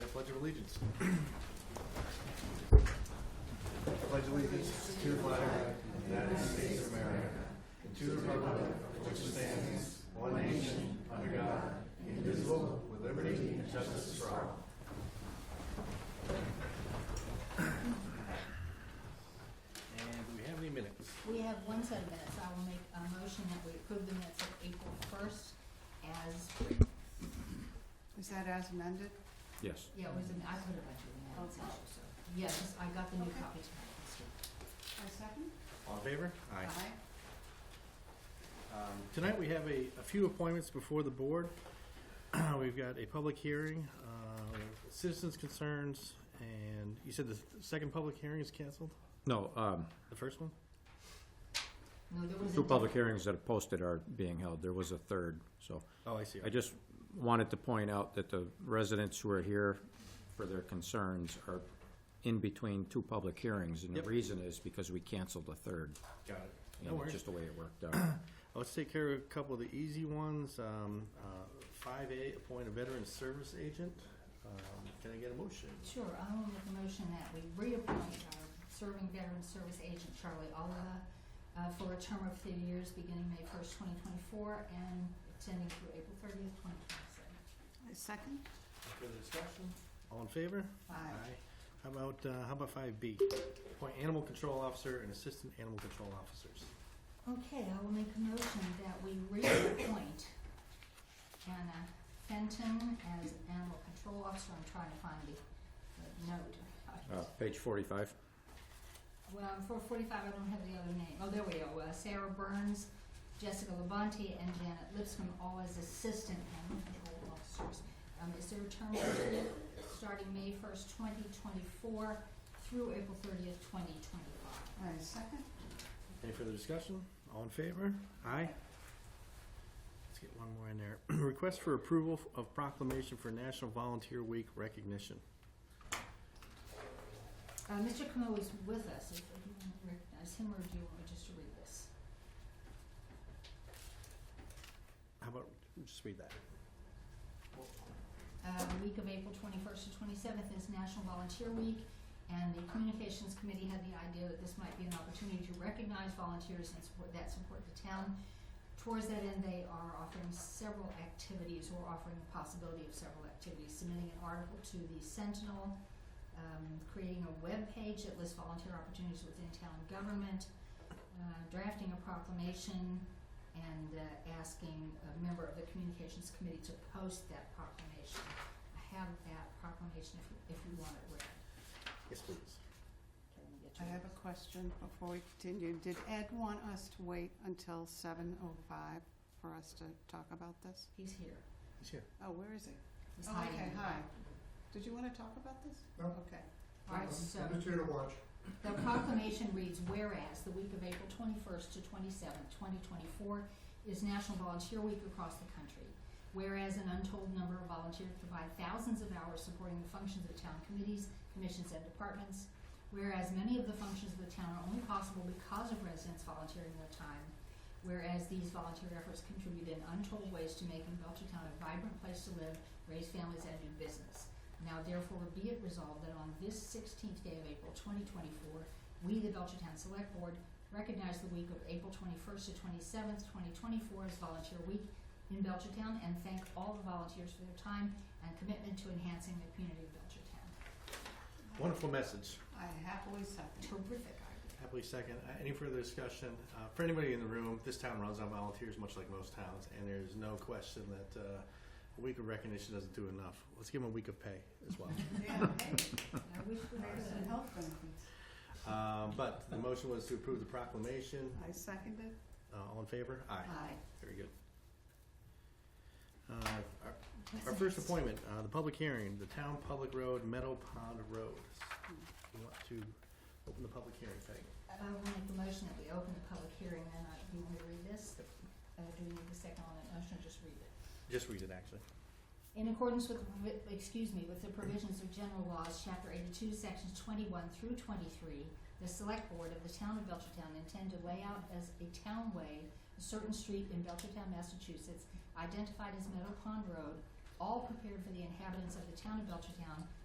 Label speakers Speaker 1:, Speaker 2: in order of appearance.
Speaker 1: allegiance. Pledge allegiance to the flag of the United States of America and to the republic for which it stands one nation under God, indivisible, with liberty and justice for all. And do we have any minutes?
Speaker 2: We have one set of minutes. I will make a motion that we approve the minutes of April first as,
Speaker 3: Is that as amended?
Speaker 4: Yes.
Speaker 2: yeah, it was an, I put a bunch of them in.
Speaker 3: Okay.
Speaker 2: so. Yes, I got the new
Speaker 3: Okay.
Speaker 2: copy tonight. Let's do it.
Speaker 3: A second?
Speaker 1: All in favor?
Speaker 3: Aye.
Speaker 1: Um, Tonight, we have a, a few appointments before the board. We've got a public hearing, uh, citizens' concerns, and you said the second public hearing is canceled?
Speaker 4: No, um,
Speaker 1: The first one?
Speaker 2: No, there was a.
Speaker 4: two public hearings that are posted are being held. There was a third, so.
Speaker 1: Oh, I see.
Speaker 4: I just wanted to point out that the residents who are here for their concerns are in between two public hearings, and the
Speaker 1: Yep.
Speaker 4: reason is because we canceled the third.
Speaker 1: Got it.
Speaker 4: You
Speaker 1: No
Speaker 4: know,
Speaker 1: worries.
Speaker 4: Just the way it worked out.
Speaker 1: Let's take care of a couple of the easy ones. Um, uh, Five A, appoint a veteran service agent. Um, Can I get a motion?
Speaker 2: Sure, I will make a motion that we reappoint our serving veteran service agent Charlie Oliva uh, for a term of three years beginning May first, twenty twenty-four and extending through April thirtieth, twenty twenty-seven.
Speaker 3: A second?
Speaker 1: Any Further discussion? All in favor?
Speaker 3: Aye.
Speaker 1: How about, uh, how about five B? Appoint animal control officer and assistant animal control officers.
Speaker 2: Okay, I will make a motion that we reappoint Anna Fenton as animal control officer. I'm trying to find the the note.
Speaker 4: Uh, Page forty-five.
Speaker 2: Well, for forty-five, I don't have the other name. Oh, there we go. Uh, Sarah Burns, Jessica Labonte, and Janet Lipscomb, all as assistant animal control officers. Um, is there a term period starting May first, twenty twenty-four through April thirtieth, twenty twenty-five?
Speaker 3: A second?
Speaker 1: Any further discussion? All in favor? Aye. Let's get one more in there. Request for approval of proclamation for National Volunteer Week recognition.
Speaker 2: Uh, Mr. Camo is with us, if if you want to recognize him, or do you want me just to read this?
Speaker 1: How about, just read that.
Speaker 2: Uh, the week of April twenty-first to twenty-seventh is National Volunteer Week, and the Communications Committee had the idea that this might be an opportunity to recognize volunteers and support, that support the town. Towards that end, they are offering several activities, or offering the possibility of several activities, submitting an article to the Sentinel, um, creating a web page that lists volunteer opportunities within town government, uh, drafting a proclamation, and uh, asking a member of the communications committee to post that proclamation. I have that proclamation if you, if you want it read.
Speaker 1: Yes, please.
Speaker 2: Can we get
Speaker 3: I
Speaker 2: you-
Speaker 3: have a question before we continue. Did Ed want us to wait until seven oh five for us to talk about this?
Speaker 2: He's here.
Speaker 1: He's here.
Speaker 3: Oh, where is he?
Speaker 2: He's
Speaker 3: Oh,
Speaker 2: hiding.
Speaker 3: okay,
Speaker 2: in the
Speaker 3: hi.
Speaker 2: back.
Speaker 3: Did you want to talk about this?
Speaker 5: No.
Speaker 3: Okay.
Speaker 2: All right, so
Speaker 5: chair to watch.
Speaker 2: the proclamation reads, whereas the week of April twenty-first to twenty-seventh, twenty twenty-four is National Volunteer Week across the country. Whereas an untold number of volunteers provide thousands of hours supporting the functions of town committees, commissions, and departments. Whereas many of the functions of the town are only possible because of residents volunteering their time. Whereas these volunteer efforts contribute in untold ways to making Belchertown a vibrant place to live, raise families, and do business. Now therefore be it resolved that on this sixteenth day of April twenty twenty-four, we, the Belchertown Select Board, recognize the week of April twenty-first to twenty-seventh, twenty twenty-four as Volunteer Week in Belchertown and thank all the volunteers for their time and commitment to enhancing the community of Belchertown.
Speaker 1: Wonderful message.
Speaker 3: I happily second.
Speaker 2: Terrific idea.
Speaker 1: Happily second. Uh, Any further discussion? Uh, For anybody in the room, this town runs on volunteers, much like most towns, and there's no question that uh, a week of recognition doesn't do enough. Let's give them a week of pay as well.
Speaker 3: Yeah, hey,
Speaker 2: I wish we
Speaker 3: there's some
Speaker 2: could.
Speaker 3: health benefits.
Speaker 1: Um, But the motion was to approve the proclamation.
Speaker 3: I seconded.
Speaker 1: Uh, All in favor? Aye.
Speaker 3: Aye.
Speaker 1: Very good. Uh, our- Our first appointment, uh, the public hearing, the town public road, Meadow Pond Road. We want to open the public hearing, Peg.
Speaker 2: I will make the motion that we open the public hearing, then I, do you want me to read this? Uh, do we need a second on that motion, or just read it?
Speaker 1: Just read it, actually.
Speaker 2: In accordance with, the provi- excuse me, with the provisions of general laws, chapter eighty-two, sections twenty-one through twenty-three, the select board of the town of Belchertown intend to lay out as a townway a certain street in Belchertown, Massachusetts, identified as Meadow Pond Road, all prepared for the inhabitants of the town of Belchertown